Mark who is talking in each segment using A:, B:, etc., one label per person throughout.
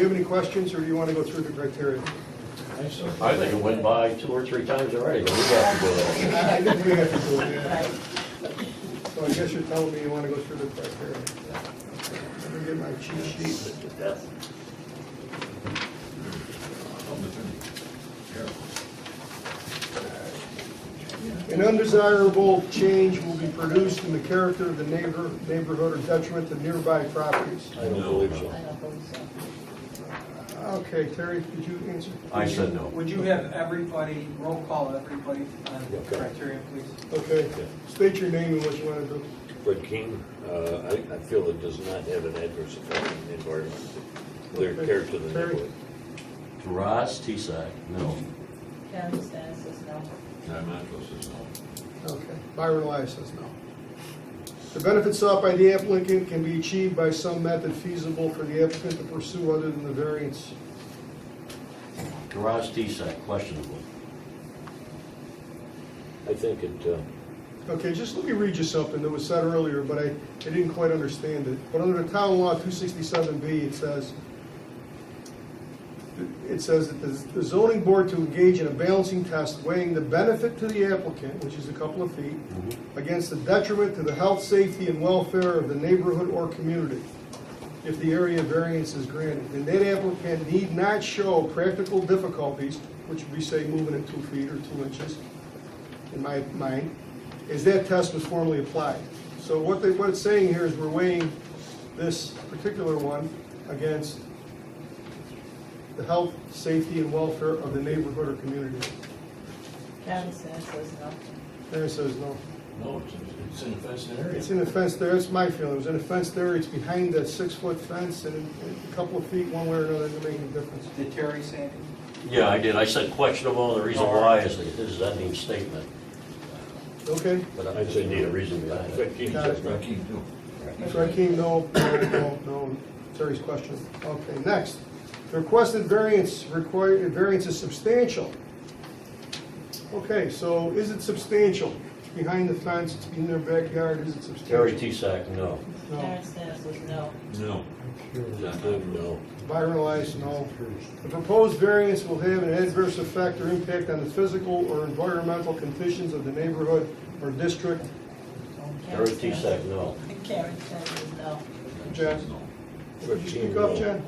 A: Do you have any questions, or do you want to go through the criteria?
B: I think it went by two or three times already, but we have to go there.
A: I I didn't think I could do it, yeah. So I guess you're telling me you want to go through the criteria. Let me get my cheat sheet. An undesirable change will be produced in the character of the neighbor, neighborhood or detriment to nearby properties.
B: I don't believe so.
A: Okay, Terry, did you answer?
B: I said no.
C: Would you have everybody, roll call everybody on the criteria, please?
A: Okay, state your name and what you want to do.
D: Fred King, uh, I I feel it does not have an adverse effect on the environment, their
A: Okay.
D: character of the
A: Terry?
D: neighborhood.
B: Ross Tisack, no.
E: Karen Stanis, no.
A: Okay, Byron Elias says no. The benefits sought by the applicant can be achieved by some method feasible for the applicant to pursue other than the variance.
B: Ross Tisack, questionable.
D: I think it, uh,
A: Okay, just let me read you something that was said earlier, but I, I didn't quite understand it. But under the town law two sixty-seven B, it says, it says that the the zoning board to engage in a balancing test weighing the benefit to the applicant, which is a couple of feet, against the detriment to the health, safety, and welfare of the neighborhood or community, if the area variance is granted. And that applicant need not show practical difficulties, which would be, say, moving it two feet or two inches, in my mind, is that test was formally applied. So what they, what it's saying here is we're weighing this particular one against the health, safety, and welfare of the neighborhood or community.
E: Karen Stanis, no.
A: There it says no.
F: No, it's, it's an offensive area.
A: It's in a fence there, it's my feeling, it was in a fence there, it's behind that six-foot fence, and a couple of feet, one way or another, doesn't make any difference.
C: Did Terry say anything?
B: Yeah, I did. I said questionable, and the reason why is that this is an ending statement.
A: Okay?
B: But I
D: I'd say
B: need a
D: no.
B: reason behind it.
D: Fred King
A: Got it.
D: says no.
A: Rakeem, no, no, no, no, Terry's question. Okay, next. The requested variance required, variance is substantial. Okay, so is it substantial? It's behind the fence, it's in their backyard, is it
B: Terry
A: substantial?
B: Tisack, no.
A: No.
E: Karen Stanis, no.
F: No.
D: I'm no.
A: Byron Elias, no. The proposed variance will have an adverse effect or impact on the physical or environmental conditions of the neighborhood or district.
B: Terry Tisack, no.
E: Karen Stanis, no.
A: Jen? Would you speak up, Jen?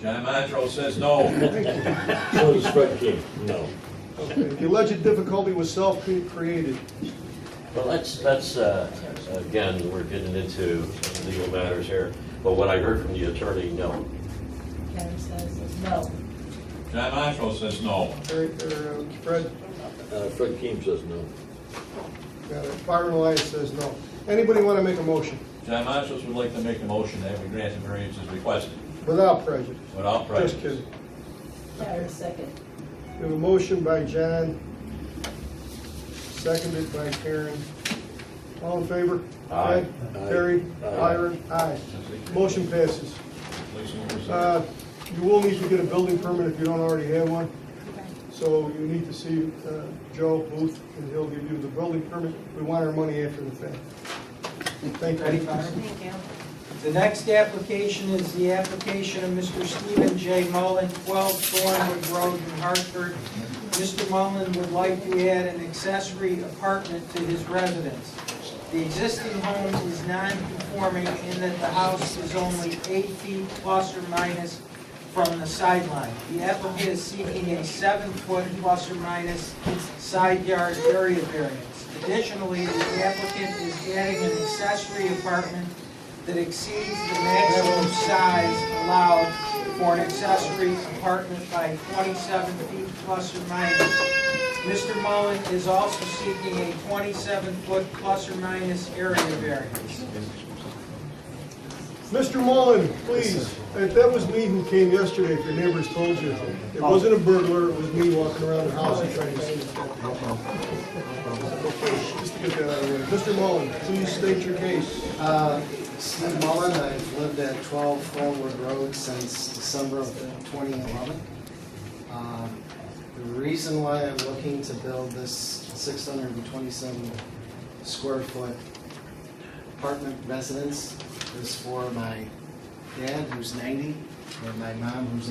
F: John Montrose says no.
A: Thank you.
D: So does Fred King, no.
A: Okay, The alleged difficulty was self-created.
B: Well, that's, that's, uh, again, we're getting into legal matters here, but what I heard from the attorney, no.
E: Karen Stanis, no.
F: John Montrose says no.
A: Or- or, uh, Fred,
D: Uh, Fred King says no.
A: got it. Byron Elias says no. Anybody want to make a motion
F: John Montrose would like to make a motion that we grant the variance as requested,
A: without prejudice?
F: without prejudice.
A: Just kidding.
E: Karen second.
A: We have a motion by John, seconded by Karen. All in favor?
B: Aye.
D: Aye.
A: Terry?
D: Aye.
A: Byron? Aye. Motion passes.
F: Lisa, what was that?
A: Uh, You will need to get a building permit if you don't already have one. So you need to see uh, Joe Booth, and he'll give you the building permit. We want our money after the fact. Thank
C: Ready,
A: you.
C: Byron?
E: Thank you.
C: The next application is the application of Mr. Stephen J. Mullen, 12 Thornwood Road in Hartford. Mr. Mullen would like to add an accessory apartment to his residence. The existing home is non-conforming in that the house is only eight feet plus or minus from the sideline. The applicant is seeking a seven-foot plus or minus side yard area variance. Additionally, the applicant is adding an accessory apartment that exceeds the maximum size allowed for an accessory apartment by 27 feet plus or minus. Mr. Mullen is also seeking a 27-foot plus or minus area variance.
A: Mr. Mullen, please, that that was me who came yesterday, if your neighbors told you. It wasn't a burglar, it was me walking around the house and trying to see. Just to get that out of the way. Mr. Mullen, please state your case.
G: Uh, Steve Mullen, I've lived at 12 Forward Road since December of 2011. Um, The reason why I'm looking to build this 627 square foot apartment residence is for my dad, who's 90, and my mom, who's